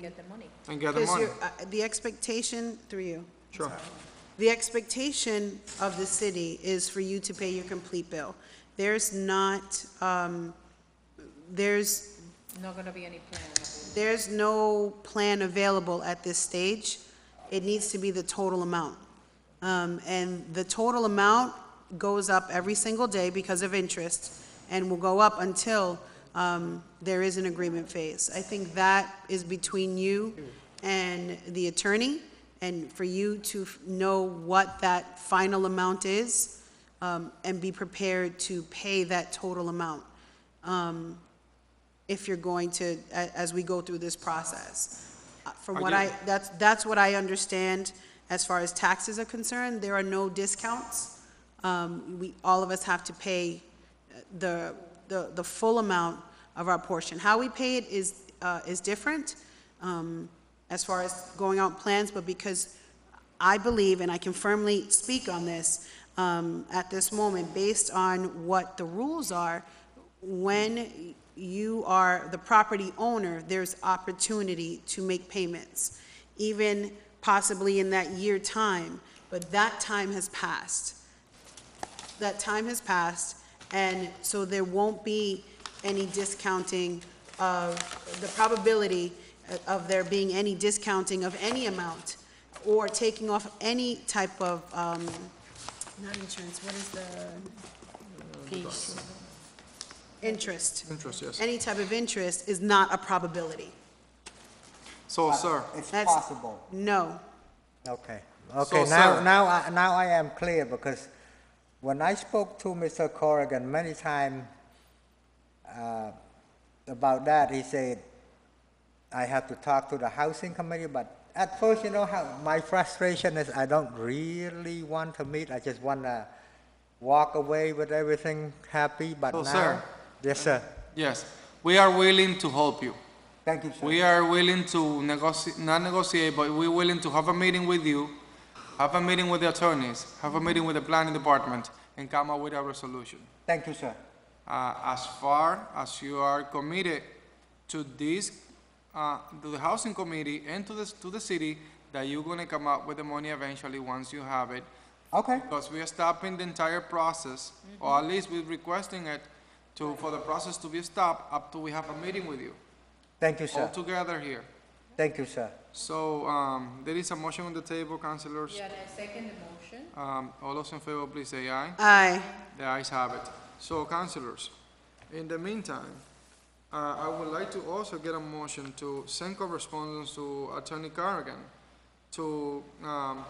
get the money. and get the Because money. you're, uh, the expectation, through you, Sure. the expectation of the city is for you to pay your complete bill. There's not, um, there's, Not gonna be any plan. There's no plan available at this stage. It needs to be the total amount. Um, And the total amount goes up every single day because of interest and will go up until um, there is an agreement phase. I think that is between you and the attorney, and for you to f- know what that final amount is um, and be prepared to pay that total amount if you're going to, a- as we go through this process. Uh, From I what do. I, that's, that's what I understand as far as taxes are concerned, there are no discounts. Um, We, all of us have to pay uh, the, the, the full amount of our portion. How we pay it is, uh, is different um, as far as going out plans, but because I believe, and I can firmly speak on this um, at this moment, based on what the rules are, when you are the property owner, there's opportunity to make payments, even possibly in that year time, but that time has passed that time has passed, and so there won't be any discounting of, the probability of there being any discounting of any amount or taking off any type of, um, not insurance, what is the? Fees. Interest. Interest, yes. Any type of interest is not a probability. So, sir, It's That's- possible. No. Okay, okay, So, sir- now, now, I- now I am clear, because when I spoke to Mr. Corrigan many times about that, he said, I have to talk to the housing committee, but at first, you know, how, my frustration is I don't really want to meet, I just wanna walk away with everything happy, but So, now. sir- Yes, sir, yes, we are willing to help you. thank you, sir. We are willing to negotiate, not negotiate, but we're willing to have a meeting with you, have a meeting with the attorneys, have a meeting with the planning department, and come up with a resolution. Thank you, sir. Uh, as far as you are committed to this, uh, to the housing committee and to this, to the city, that you're gonna come up with the money eventually once you have it, Okay, because we are stopping the entire process, or at least we're requesting it to, for the process to be stopped up till we have a meeting with you, thank you, all sir, together here. thank you, sir. So, um, there is a motion on the table, councilors. Yeah, and I second the motion. Um, all those in favor, please say aye. Aye. The ayes have it. So, councilors, in the meantime, uh, I would like to also get a motion to send correspondence to Attorney Carrigan to, um,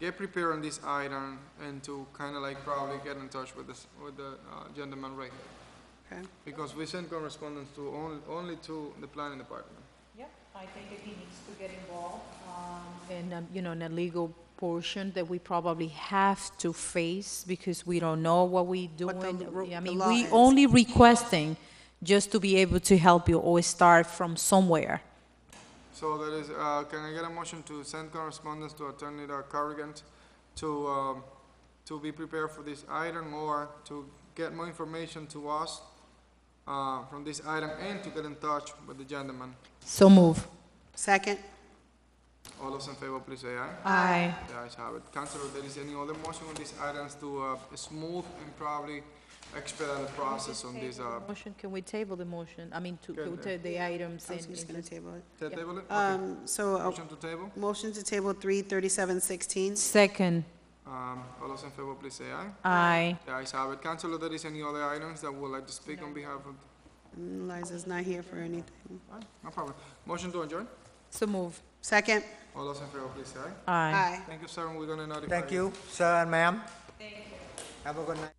get prepared on this item and to kinda like probably get in touch with this, with the, uh, gentleman right here. Okay. Because we send correspondence to only, only to the planning department. Yep, I think that he needs to get involved, um, in, um, you know, in a legal portion that we probably have to face because we don't know what we What the doing. ru- I the mean, law we is. only requesting just to be able to help you or start from somewhere. So that is, uh, can I get a motion to send correspondence to Attorney uh, Carrigan to, um, to be prepared for this item or to get more information to us, uh, from this item and to get in touch with the gentleman? So move. Second? All those in favor, please say aye. Aye. The ayes have it. Counselor, there is any other motion on these items to, uh, smooth and probably expedite the process on this, uh, Motion, can we table the motion? I mean, to, Can, to uh, take the items I in. was just in gonna the- table it. ta- table it? Okay. Um, so, uh, Motion to table? motion to table three thirty-seven sixteen? Second, Um, all those in favor, please say aye. aye. The ayes have it. Counselor, there is any other items that would like to speak on behalf of Mm, Liza's not here for anything. Alright, No problem. Motion to adjourn? So move. Second? All those in favor, please say aye. Aye. Aye. Thank you, sir, and we're gonna notify you. Thank you, sir and ma'am. Thank you. Have a good night.